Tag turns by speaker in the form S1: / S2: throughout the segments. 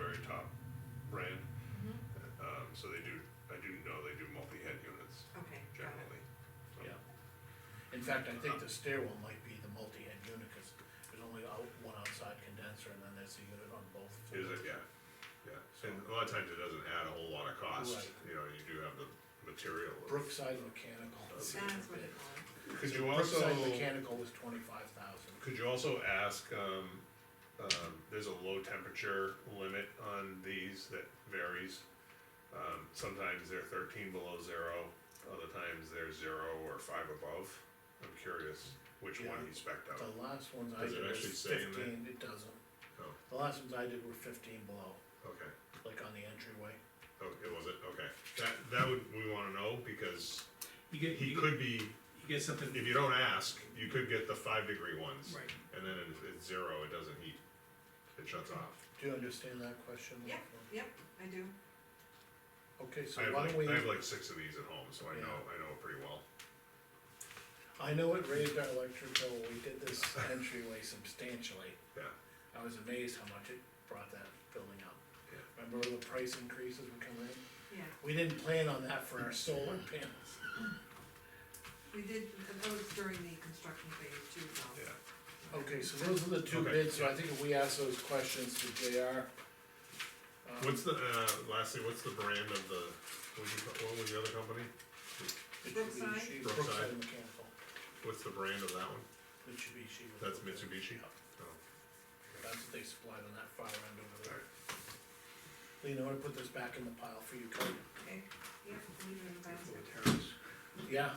S1: Mm-hmm.
S2: Um,
S1: fact, I think the stairwell might be the multi-head unit, cause there's only out, one outside condenser, and then there's a unit on both.
S2: Is it, yeah, yeah, and a lot of times it doesn't add a whole lot of cost,
S1: Right.
S2: you know, you do have the material.
S1: Brookside Mechanical.
S2: That's
S3: That's what it was.
S2: Could you also,
S1: Brookside Mechanical was twenty-five thousand.
S2: could you also ask, um, um, there's a low temperature limit on these that varies. Um, sometimes they're thirteen below zero, other times they're zero or five above, I'm curious which one
S1: Yeah.
S2: he spec'd out.
S1: The last ones I
S2: Does it
S1: did was
S2: actually say in there?
S1: fifteen, it doesn't,
S2: Oh,
S1: the last ones I did were fifteen below,
S2: okay.
S1: like on the entryway.
S2: Oh, it wasn't, okay, that, that would, we wanna know, because
S4: You get,
S2: he
S4: you get,
S2: could be,
S4: you get something,
S2: if you don't ask, you could get the five degree ones.
S4: right,
S2: And then it's, it's zero, it doesn't heat, it shuts off.
S1: Do you understand that question?
S3: Yeah. Yep,
S1: Lachlan?
S3: I do.
S1: Okay, so
S2: I have
S1: why don't
S2: like,
S1: we,
S2: I have like six of these at home, so I
S1: Yeah.
S2: know, I know it pretty well.
S1: I know it raised our electric bill, we did this entryway substantially.
S2: Yeah.
S1: I was amazed how much it brought that building up.
S2: Yeah.
S1: Remember all the price increases would come in?
S3: Yeah,
S1: We didn't plan on that for our solar panels.
S3: we did, and that was during the construction phase too, though.
S2: Yeah.
S1: Okay, so those are the two
S2: Okay.
S1: bids, so I think if we ask those questions to JR. um,
S2: What's the, uh, lastly, what's the brand of the, what was, the- what was the other company? Brookside.
S3: Brookside?
S1: Mitsubishi- Brookside Mechanical,
S2: What's the brand of that one?
S1: Mitsubishi. was
S2: That's
S1: the bid.
S2: Mitsubishi?
S1: Yeah,
S2: Oh,
S1: That's what they supplied on that far end over there.
S2: alright,
S1: Lean, I wanna put this back in the pile for you, Cody.
S3: Okay, yeah, leave it in the basket.
S1: Yeah,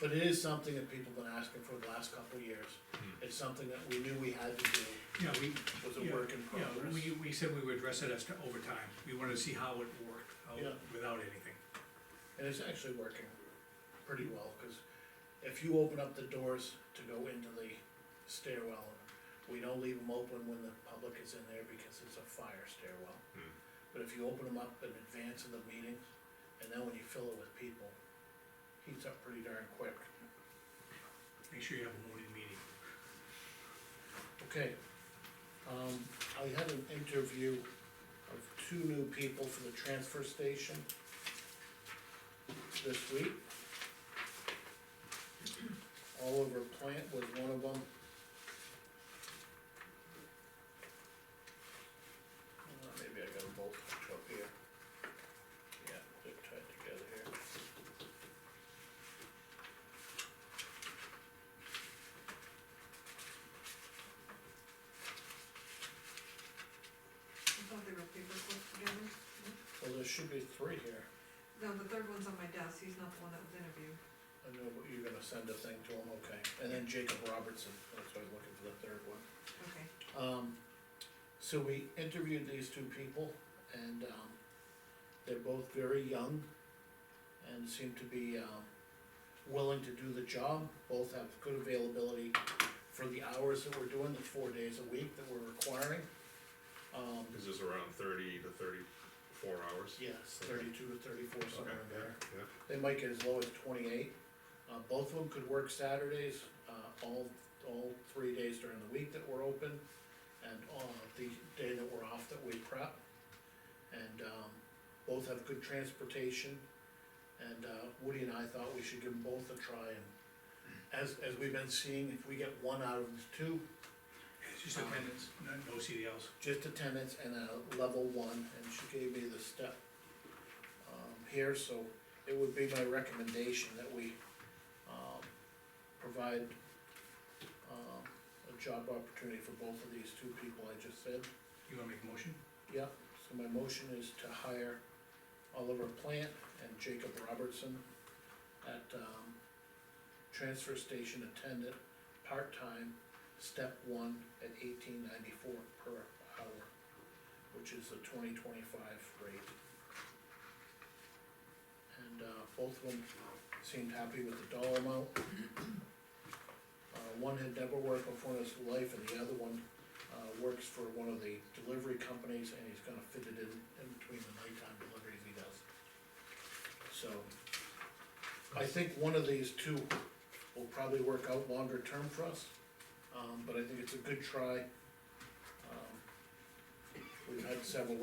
S1: but it is something that people have been asking for the last couple of years.
S2: Hmm.
S1: It's something that we knew we had to do,
S4: yeah, we,
S1: was
S4: Yeah,
S1: a work in
S4: yeah,
S1: progress.
S4: we, we said we would address it as to overtime, we wanted to see how it worked, how,
S1: Yeah.
S4: without anything.
S1: And it's actually working pretty well, cause if you open up the doors to go into the stairwell, we don't leave them open when the public is in there because it's a fire stairwell.
S2: Hmm.
S1: But if you open them up in advance of the meeting, and then when you fill it with people, heats up pretty darn quick.
S4: Make sure you have a morning meeting.
S1: Okay, um, I had an interview of two new people for the transfer station this week. Oliver Plant was one of them. Uh, maybe I got them both hooked up here. Yeah, they're tied together here.
S3: I thought they were paper clipped together.
S1: Well, there should be three here.
S3: No, the third one's on my desk, he's not the one that was interviewed.
S1: I know, but you're gonna send a thing to him, okay, and then Jacob Robertson, that's why I was looking for the third one.
S3: Okay,
S1: Um, so we interviewed these two people and, um, they're both very young and seem to be, um, willing to do the job, both have good availability for the hours that we're doing, the four days a week that we're requiring. Um,
S2: is this around thirty to thirty-four hours?
S1: yes, thirty-two to thirty-four,
S2: Okay,
S1: somewhere in there.
S2: yeah, yeah,
S1: They might get as low as twenty-eight. Uh, both of them could work Saturdays, uh, all, all three days during the week that we're open, and on the day that we're off that we prep. And, um, both have good transportation, and, uh, Woody and I thought we should give them both a try, and as, as we've been seeing, if we get one out of the two,
S4: It's just attendance, no, no CDLs.
S1: just attendance and a level one, and she gave me the step um, here, so it would be my recommendation that we um, provide um, a job opportunity for both of these two people I just said.
S4: You wanna make a motion?
S1: Yeah, so my motion is to hire Oliver Plant and Jacob Robertson at, um, transfer station attendant, part-time, step one at eighteen ninety-four per hour, which is the twenty twenty-five rate. And, uh, both of them seemed happy with the dollar amount. Uh, one had never worked before in his life, and the other one uh, works for one of the delivery companies, and he's gonna fit it in, in between the nighttime deliveries he does. So, I think one of these two will probably work out longer term for us, um, but I think it's a good try. Um, We've had several